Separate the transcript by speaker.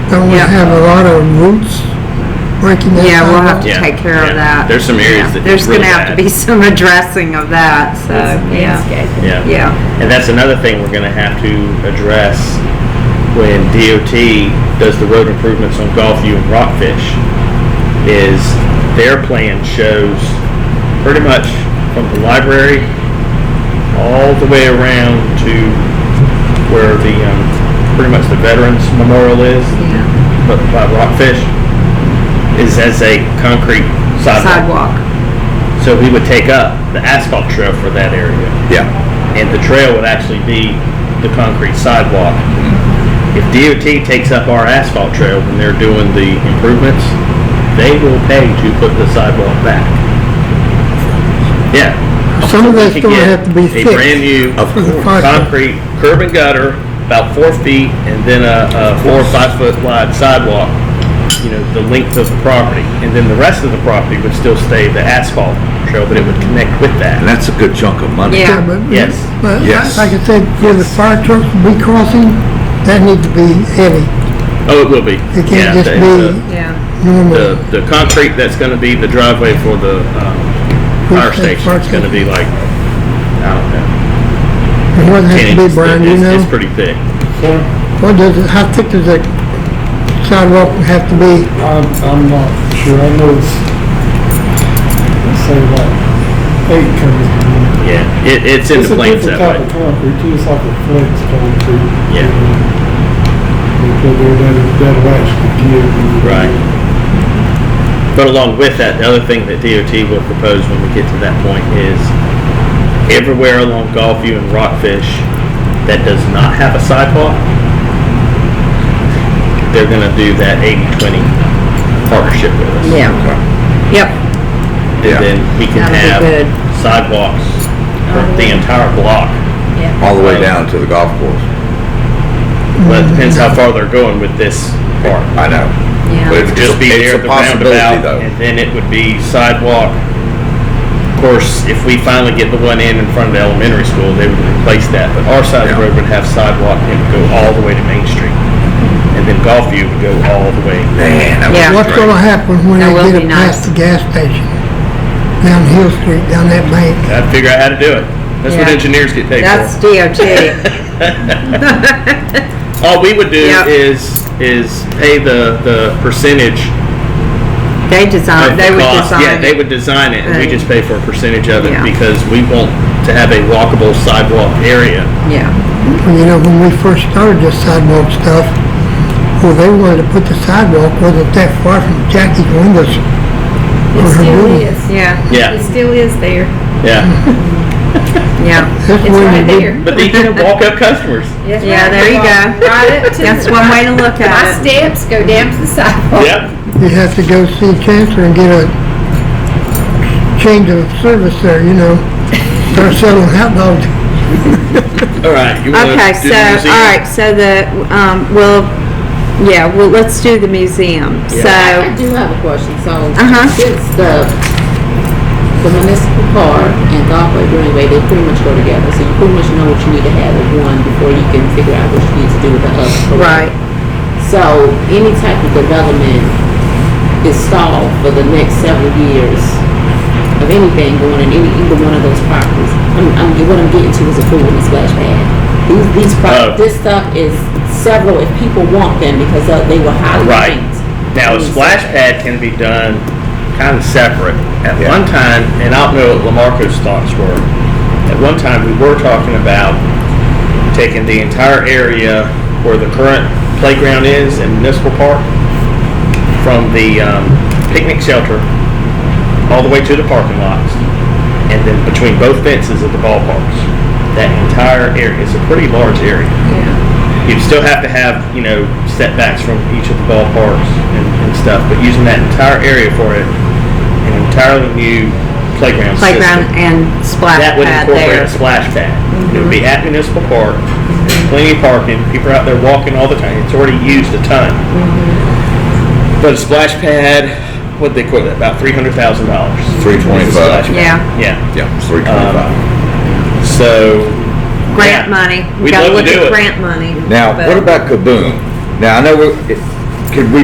Speaker 1: Don't we
Speaker 2: Yeah.
Speaker 1: have a lot of roots breaking that
Speaker 2: Yeah, we'll have
Speaker 1: sidewalk?
Speaker 2: to
Speaker 3: Yeah,
Speaker 2: take care
Speaker 3: yeah.
Speaker 2: of that.
Speaker 3: There's some areas
Speaker 2: Yeah,
Speaker 3: that
Speaker 2: There's
Speaker 3: it's really
Speaker 2: gonna have to
Speaker 3: bad.
Speaker 2: be some addressing of that, so, yeah,
Speaker 4: landscaping.
Speaker 3: Yeah.
Speaker 2: yeah,
Speaker 3: And that's another thing we're gonna have to address when DOT does the road improvements on Golfview and Rockfish, is their plan shows pretty much from the library all the way around to where the, um, pretty much the Veterans Memorial is,
Speaker 2: yeah.
Speaker 3: but by Rockfish, is as a concrete sidewalk.
Speaker 2: Sidewalk,
Speaker 3: So we would take up the asphalt trail for that area
Speaker 5: Yeah,
Speaker 3: and the trail would actually be the concrete sidewalk.
Speaker 5: Mm-hmm.
Speaker 3: If DOT takes up our asphalt trail when they're doing the improvements, they will pay to put the sidewalk back. Yeah.
Speaker 1: Some of that's
Speaker 3: We could
Speaker 1: gonna
Speaker 3: get
Speaker 1: have to be
Speaker 3: A
Speaker 1: fixed.
Speaker 3: brand new
Speaker 5: Of course.
Speaker 3: concrete curb and gutter, about four feet, and then a, a four or five foot wide sidewalk, you know, the length of the property. And then the rest of the property would still stay the asphalt trail, but it would connect with
Speaker 5: and
Speaker 3: that.
Speaker 5: that's a good chunk of money.
Speaker 2: Yeah.
Speaker 1: but-
Speaker 3: Yes.
Speaker 1: But
Speaker 5: Yes.
Speaker 1: like I said, for the fire trucks to be crossing, that needs to be heavy.
Speaker 3: Oh, it will be.
Speaker 1: It
Speaker 3: Yeah,
Speaker 1: can't just
Speaker 3: the- the-
Speaker 1: be
Speaker 2: yeah,
Speaker 1: normal.
Speaker 3: the, the concrete that's gonna be the driveway for the, um, fire
Speaker 1: Okay,
Speaker 3: station is gonna be like, I don't know.
Speaker 1: What has
Speaker 3: 10
Speaker 1: to be,
Speaker 3: inches
Speaker 1: Brian,
Speaker 3: thick.
Speaker 1: you
Speaker 3: It's-
Speaker 1: know?
Speaker 3: It's pretty thick.
Speaker 1: What does, it- how thick does that sidewalk have to be?
Speaker 6: I'm, I'm not sure, I know it's, let's say about eight comes to me.
Speaker 3: Yeah, it, it's in the plans that
Speaker 6: It's a different type of
Speaker 3: way.
Speaker 6: concrete, too, it's like a flex concrete.
Speaker 3: Yeah.
Speaker 6: Because they're, that- that'll actually give you.
Speaker 3: Right. But along with that, the other thing that DOT will propose when we get to that point is everywhere along Gulfview and Rockfish that does not have a sidewalk, they're gonna do that 80-20 partnership with us.
Speaker 2: yeah, yep,
Speaker 5: Yeah.
Speaker 3: And then we can
Speaker 2: That'll be
Speaker 3: have
Speaker 2: good. Oh,
Speaker 3: sidewalks for the entire block.
Speaker 5: All the way down to the golf course.
Speaker 3: But it depends how far they're going with this part.
Speaker 5: I know.
Speaker 2: yeah.
Speaker 5: But it's,
Speaker 3: Just be
Speaker 5: it's
Speaker 3: there at
Speaker 5: a
Speaker 3: the
Speaker 5: possibility
Speaker 3: roundabout,
Speaker 5: though.
Speaker 3: and then it would be sidewalk. Of course, if we finally get the one in in front of the elementary school, they would replace that. But our side of the
Speaker 5: Yeah.
Speaker 3: road would have sidewalk and it would go all the way to Main Street. And then Gulfview would go all the way.
Speaker 5: Man, that
Speaker 2: Yeah.
Speaker 5: would
Speaker 1: What's
Speaker 5: be
Speaker 1: gonna
Speaker 5: great.
Speaker 1: happen when
Speaker 2: That
Speaker 1: they
Speaker 2: will
Speaker 1: get
Speaker 2: be
Speaker 1: it past
Speaker 2: nice.
Speaker 1: the gas station? Down Hill Street, down that bank?
Speaker 3: I'd figure out how to do it. That's what
Speaker 2: Yeah.
Speaker 3: engineers get paid for.
Speaker 2: That's DOT.
Speaker 3: All we would do
Speaker 2: Yep.
Speaker 3: is, is pay the, the percentage
Speaker 2: They design,
Speaker 3: of
Speaker 2: Uh, they
Speaker 3: the
Speaker 2: would
Speaker 3: cost.
Speaker 2: design.
Speaker 3: Yeah, they
Speaker 2: it.
Speaker 3: would design it, and we
Speaker 2: Right.
Speaker 3: just pay for a percentage of it
Speaker 2: Yeah.
Speaker 3: because we want to have a walkable sidewalk area.
Speaker 2: Yeah,
Speaker 1: Well, You know, when we first started this sidewalk stuff, well, they wanted to put the sidewalk wasn't that far from Jackie's windows.
Speaker 4: It still is.
Speaker 2: yeah,
Speaker 3: Yeah,
Speaker 4: It still is there.
Speaker 2: Mm-hmm.
Speaker 3: yeah.
Speaker 2: yeah.
Speaker 1: That's
Speaker 4: It's
Speaker 1: where
Speaker 4: right
Speaker 1: you get-
Speaker 4: there.
Speaker 3: But these are walk-up customers.
Speaker 4: That's
Speaker 2: Yeah,
Speaker 4: right.
Speaker 2: there you go.
Speaker 4: Right up to.
Speaker 2: That's one way to look
Speaker 4: My
Speaker 2: at it.
Speaker 4: steps go down to the sidewalk.
Speaker 3: Yep.
Speaker 1: You have to go see Chancellor and get a change of service there, you know. Start selling hot dogs.
Speaker 3: All right. You wanna
Speaker 2: Okay, so,
Speaker 3: do the museum?
Speaker 2: all right, so the, um, we'll, yeah, well, let's do the museum.
Speaker 7: I
Speaker 2: So,
Speaker 7: do have a question, so.
Speaker 2: Uh-huh.
Speaker 7: Since the, the municipal park and Golfway Greenway, they pretty much go together, so you pretty much know what you need to have with one before you can figure out what you need to do with the other. correct?
Speaker 2: right,
Speaker 7: So any type of development is stalled for the next several years of anything going in any, either one of those properties. I'm, I'm, what I'm getting to is a pool and a splash pad. These, these
Speaker 3: Oh.
Speaker 7: pro, this stuff is several, if people want them, because uh, they were highly
Speaker 3: Right.
Speaker 7: ranked.
Speaker 3: Now, a splash pad can be done kind of separate. At
Speaker 5: Yeah.
Speaker 3: one time, and I don't know what Lamarco's thoughts were, at one time, we were talking about taking the entire area where the current playground is and municipal park from the um, picnic shelter all the way to the parking lots, and then between both fences of the ballparks. That entire area, it's a pretty large area. You'd still have to have, you know, setbacks from each of the ballparks and, and stuff, but using that entire area for it, an entirely new playground
Speaker 2: playground
Speaker 3: system.
Speaker 2: and splash
Speaker 3: That would
Speaker 2: pad
Speaker 3: incorporate
Speaker 2: there.
Speaker 3: a splash pad. It
Speaker 2: Mm-hmm.
Speaker 3: would be at municipal park, plenty of parking, people are out there walking all the time, it's already used a ton.
Speaker 2: Mm-hmm.
Speaker 3: But a splash pad, what'd they quote that, about three hundred thousand dollars?
Speaker 5: 325.
Speaker 2: Yeah,
Speaker 3: Yeah, Um,
Speaker 5: Yeah, it's three twenty-five.
Speaker 3: so. yeah.
Speaker 2: grant money. We
Speaker 3: We'd
Speaker 2: gotta
Speaker 3: love to
Speaker 2: look
Speaker 3: do
Speaker 2: at
Speaker 3: it.
Speaker 2: Grant money.
Speaker 5: Now,
Speaker 2: but-
Speaker 5: what about Kaboom? Now, I know we're- it- could we